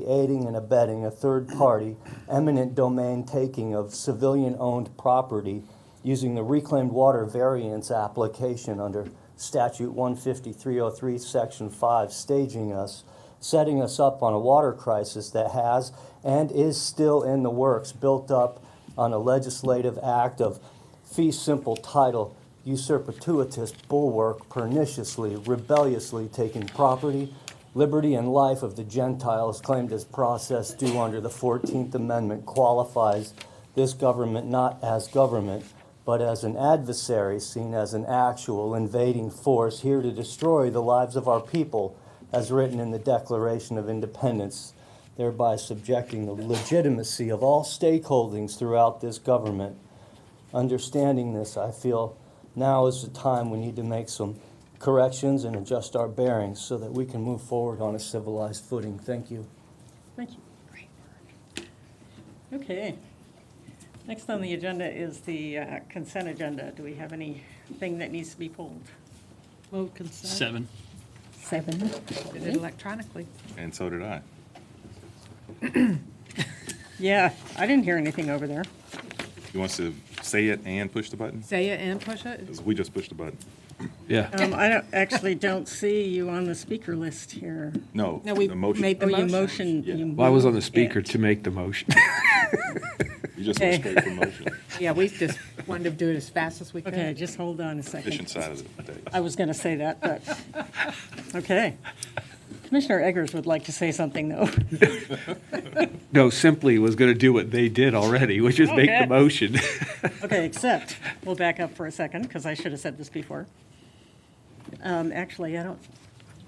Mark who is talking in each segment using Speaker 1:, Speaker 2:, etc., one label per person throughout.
Speaker 1: the aiding and abetting a third party eminent domain taking of civilian-owned property using the reclaimed water variance application under statute one fifty-three oh three, section five, staging us, setting us up on a water crisis that has and is still in the works, built up on a legislative act of fee simple title usurpatuitous bulwark perniciously, rebelliously taking property, liberty, and life of the Gentiles claimed as process due under the 14th Amendment qualifies this government not as government, but as an adversary seen as an actual invading force here to destroy the lives of our people, as written in the Declaration of Independence, thereby subjecting the legitimacy of all stakeholdings throughout this government understanding this, I feel now is the time we need to make some corrections and adjust our bearings so that we can move forward on a civilized footing. Thank you.
Speaker 2: Thank you. Great work. Okay. Next on the agenda is the uh, consent agenda. Do we have anything that needs to be pulled?
Speaker 3: Move consent.
Speaker 4: Seven.
Speaker 5: Seven.
Speaker 3: Did it electronically.
Speaker 6: And so did I.
Speaker 2: Yeah, I didn't hear anything over there.
Speaker 6: He wants to say it and push the button?
Speaker 3: Say it and push it.
Speaker 6: 'Cause we just pushed the button.
Speaker 4: Yeah.
Speaker 2: Um, I don't, actually don't see you on the speaker list here.
Speaker 6: No.
Speaker 3: No, we
Speaker 6: the motion.
Speaker 3: made the
Speaker 2: Oh, you
Speaker 3: motion.
Speaker 2: motioned.
Speaker 6: Yeah.
Speaker 2: you
Speaker 4: Well, I was on the
Speaker 2: moved
Speaker 4: speaker
Speaker 2: it.
Speaker 4: to make the motion.
Speaker 6: You just went
Speaker 2: Okay.
Speaker 6: straight from motion.
Speaker 3: Yeah, we just wanted to do it as fast as we could.
Speaker 2: Okay, just hold on a second.
Speaker 6: Efficient side of the day.
Speaker 2: I was going to say that, but, okay. Commissioner Eggers would like to say something, though.
Speaker 4: No, simply was going to do what they did already, which is make
Speaker 2: Okay.
Speaker 4: the motion.
Speaker 2: Okay, except, we'll back up for a second, because I should have said this before. Um, Actually, I don't,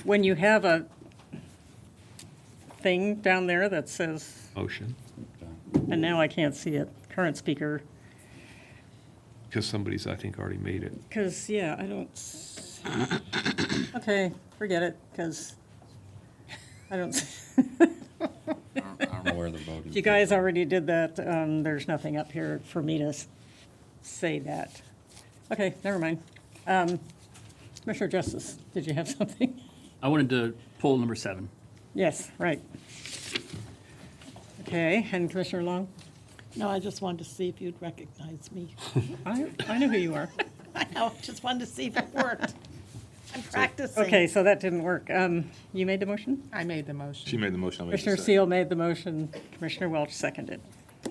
Speaker 2: when you have a thing down there that says,
Speaker 4: Motion,
Speaker 2: and now I can't see it, current speaker,
Speaker 4: because somebody's, I think, already made it.
Speaker 2: because, yeah, I don't, s- okay, forget it, because I don't, s-
Speaker 7: I don't know where the voting.
Speaker 2: you guys already did that, um, there's nothing up here for me to s- say that. Okay, never mind. Um, Commissioner Justice, did you have something?
Speaker 4: I wanted to pull number seven.
Speaker 2: Yes, right. Okay, and Commissioner Long?
Speaker 3: No, I just wanted to see if you'd recognize me.
Speaker 2: I, I know who you are.
Speaker 3: I know, just wanted to see if it worked. I'm practicing.
Speaker 2: Okay, so that didn't work. Um, You made the motion?
Speaker 3: I made the
Speaker 6: She
Speaker 3: motion.
Speaker 6: made the motion. I made the
Speaker 2: Commissioner
Speaker 6: second.
Speaker 2: Seal made the motion, Commissioner Welch seconded.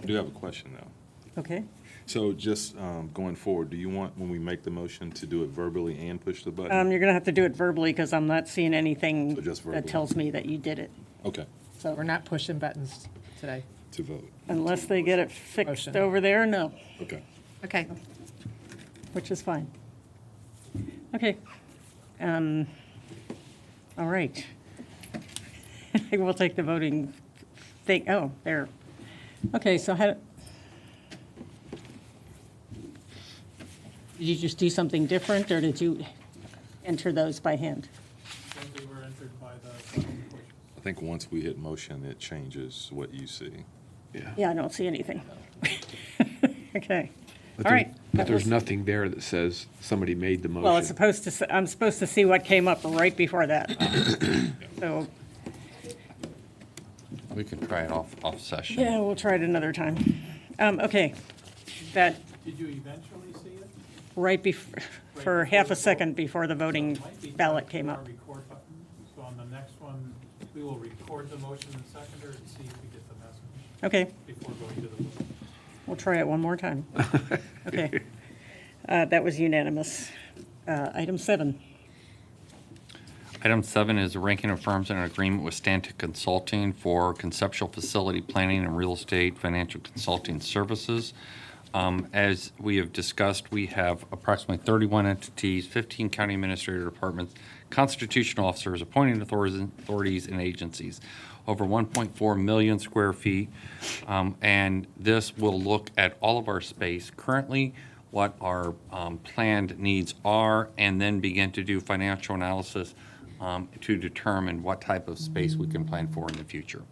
Speaker 6: I do have a question, though.
Speaker 2: Okay?
Speaker 6: So just um, going forward, do you want, when we make the motion, to do it verbally and push the
Speaker 2: Um,
Speaker 6: button?
Speaker 2: You're going to have to do it verbally because I'm not seeing anything
Speaker 6: So just
Speaker 2: that
Speaker 6: verbally.
Speaker 2: tells me that you did it.
Speaker 6: Okay,
Speaker 3: We're
Speaker 2: So
Speaker 3: not pushing buttons today.
Speaker 6: to vote.
Speaker 2: unless they get it fixed
Speaker 3: Motion.
Speaker 2: over there, no,
Speaker 6: Okay.
Speaker 3: Okay.
Speaker 2: which is fine. Okay. Um, All right. I think we'll take the voting thing, oh, there. Okay, so how, did you just do something different, or did you enter those by hand?
Speaker 8: They were entered by the
Speaker 6: I think once we hit motion, it changes what you see.
Speaker 2: Yeah, I don't see anything. Okay,
Speaker 4: But
Speaker 2: all
Speaker 4: there-
Speaker 2: right.
Speaker 4: But
Speaker 2: That
Speaker 4: there's
Speaker 2: was-
Speaker 4: nothing there that says somebody made the motion.
Speaker 2: Well, it's supposed to, s- I'm supposed to see what came up right before that. So,
Speaker 7: We could try it off, off session.
Speaker 2: yeah, we'll try it another time. Um, Okay, that,
Speaker 8: Did you eventually see it?
Speaker 2: right before, for half a second before the voting
Speaker 8: It might be
Speaker 2: Mm, ballot
Speaker 8: time
Speaker 2: came
Speaker 8: for our
Speaker 2: up.
Speaker 8: record button. So on the next one, we will record the motion and seconder and see if we get the message
Speaker 2: Okay,
Speaker 8: before going to the vote.
Speaker 2: we'll try it one more time. Okay. Uh, That was unanimous. Uh, Item seven.
Speaker 7: Item seven is ranking of firms in an agreement with Stantec Consulting for conceptual facility planning and real estate financial consulting services. Um, As we have discussed, we have approximately 31 entities, 15 county administrator departments, constitutional officers, appointing authorities- authorities, and agencies, over 1.4 million square feet. Um, And this will look at all of our space. Currently, what our um, planned needs are, and then begin to do financial analysis um, to determine what type of space we can plan for in the future.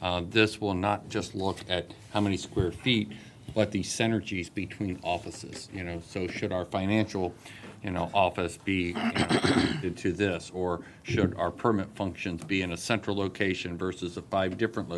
Speaker 7: Uh, This will not just look at how many square feet, but the synergies between offices, you know, so should our financial you know, office be you know, to this? Or should our permit functions be in a central location versus the five different locations?